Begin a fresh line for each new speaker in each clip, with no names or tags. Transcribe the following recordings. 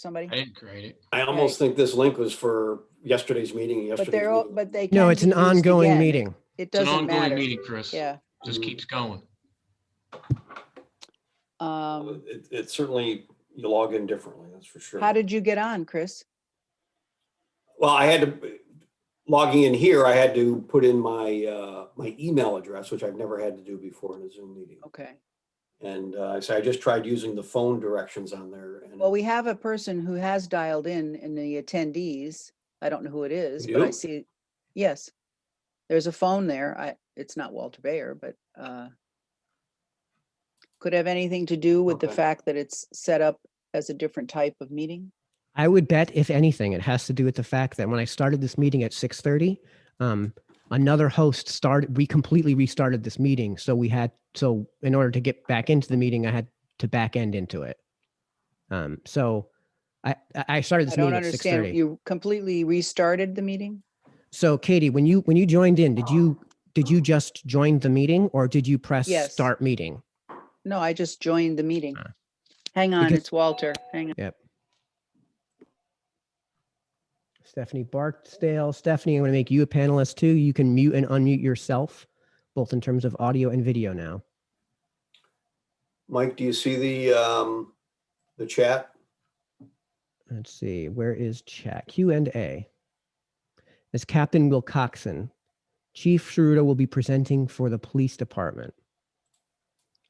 somebody.
I didn't create it.
I almost think this link was for yesterday's meeting,
But
yesterday's
they're, all-
meeting.
but they.
No,
can
it's
be
an
used
ongoing
again.
meeting.
It
It's an
doesn't
ongoing
matter.
meeting, Chris.
Yeah.
Just
Mhm.
keeps going. Oh,
Um,
It, it certainly, you log in differently, that's for sure.
how did you get on, Chris?
Well, I had to, logging in here, I had to put in my, uh, my email address, which I've never had to do before in a Zoom meeting.
Okay.
And, uh, so I just tried using the phone directions on there and.
Well, we have a person who has dialed in in the attendees. I don't know who it is,
You
but I
do?
see, yes. There's a phone there. I, it's not Walter Bayer, but, uh, could have anything to do with the
Okay.
fact that it's set up as a different type of meeting?
I would bet, if anything, it has to do with the fact that when I started this meeting at 6:30, um, another host started. We completely restarted this meeting, so we had so in order to get back into the meeting, I had to back end into it. Um, so I I I started
I
this
don't
meeting at 6:30.
understand. You completely restarted the meeting?
So Katie, when you when you joined in, did you did you just join the meeting or did you press
Yes.
start meeting?
No, I just joined the meeting.
Ah.
Hang on,
Because-
it's Walter. Hang on.
Stephanie Barksdale, Stephanie, I'm going to make you a panelist too. You can mute and unmute yourself, both in terms of audio and video now.
Mike, do you see the, um, the chat?
Let's see, where is chat? Q and A. As Captain Wilcoxon, Chief Sharuda will be presenting for the police department.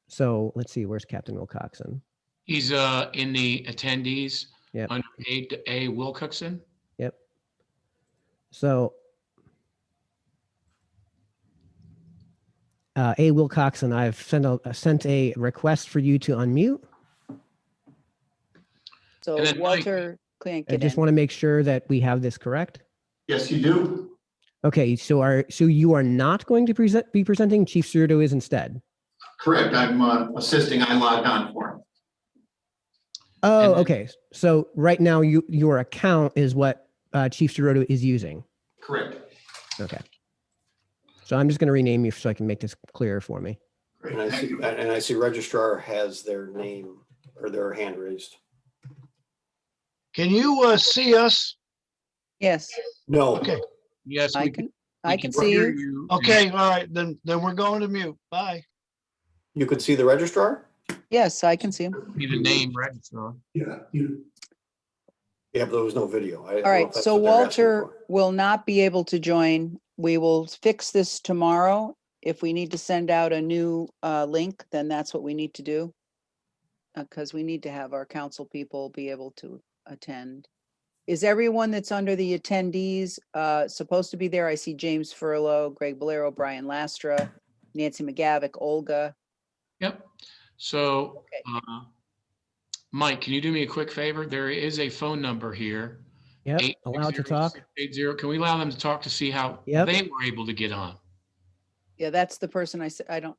So let's see, where's Captain Wilcoxon?
He's uh in the attendees
Yep.
under A A Wilcoxen.
Yep. So uh, A Wilcoxon, I've sent a uh, sent a request for you to unmute.
So
then Mike-
Walter can't
I
get
just
in.
want to make sure that we have this correct.
Yes, you do.
Okay, so are so you are not going to present be presenting Chief Cerruto is instead.
Correct. I'm uh, assisting. I logged on for him.
Oh,
then-
okay. So right now you your account is what uh, Chief Cerruto is using.
Correct.
Okay. So I'm just going to rename you so I can make this clearer for me.
Great.
And I
Thank
see,
you.
and and I see registrar has their name or their hand raised.
Can you uh, see us?
Yes,
No,
Okay,
Yes.
I
we
can,
we
I can see you.
hear
Mm-hmm.
you.
okay, all right, then, then we're going to mute. Bye.
you could see the registrar?
Yes, I can see him.
See the name registrar.
Yeah, you,
Yeah, but there was no video. I don't know
All
if
right,
that's
so
what they're asking
Walter
for.
will not be able to join. We will fix this tomorrow. If we need to send out a new uh, link, then that's what we need to do. Because we need to have our council people be able to attend. Is everyone that's under the attendees uh, supposed to be there? I see James Furlow, Greg Bolero, Brian Lastra, Nancy McGavick, Olga.
Yep. So,
Okay.
uh, Mike, can you do me a quick favor? There is a phone number here.
Yep. Allowed to talk.
860-680. Can we allow them to talk to see how
Yep.
they were able to get on?
Yeah, that's the person I said, I don't,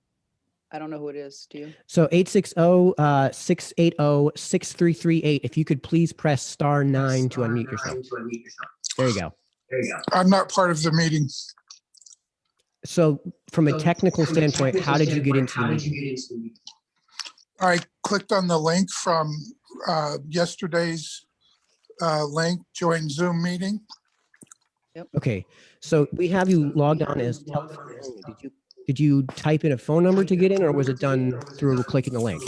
I don't know who it is. Do you?
So 860 uh, 680 6338. If you could please press star nine to unmute yourself. There you go.
I'm not part of the meeting.
So, from a technical standpoint, how did you get into the meeting?
meeting?
I clicked on the link from uh, yesterday's uh, link, join Zoom meeting.
Okay. So, we have you logged on as telephone only. Did you, did you type in a phone number to get in, or was it done through clicking a link?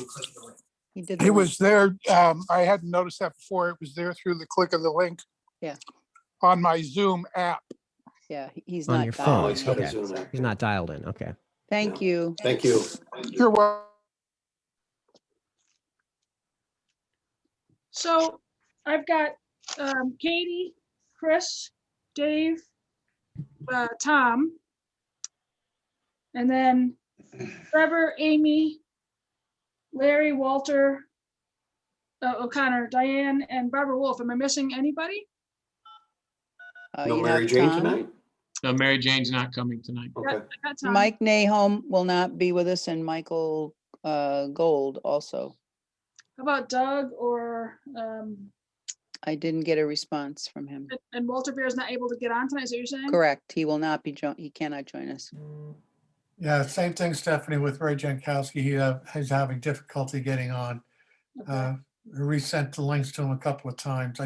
He did. the
It
link.
was there, um, I hadn't noticed that before. It was there through the click of the link.
Yeah.
On my Zoom app.
Yeah, he- he's
On
not.
your
dialed
phone,
Oh,
in.
he's got
okay.
his own app.
He's not dialed in. Okay.
Thank you.
Thank you.
You're welcome.
So I've got um, Katie, Chris, Dave, uh, Tom. And then Trevor, Amy, Larry, Walter, uh, O'Connor, Diane, and Barbara Wolf. Am I missing anybody?
Uh,
No
you
Mary
have
Jane
Tom.
tonight?
No, Mary Jane's not coming tonight.
Okay.
I got Tom.
Mike Nahom will not be with us and Michael uh, Gold also.
How about Doug or, um,
I didn't get a response from him.
and- and Walter Beer is not able to get on tonight, is that what you're saying?
Correct. He will not be, jo- he cannot join us.
Yeah, same thing, Stephanie, with Ray Jankowski. He, uh, he's having difficulty getting on.
Okay.
Uh, resent the links to him a couple of times.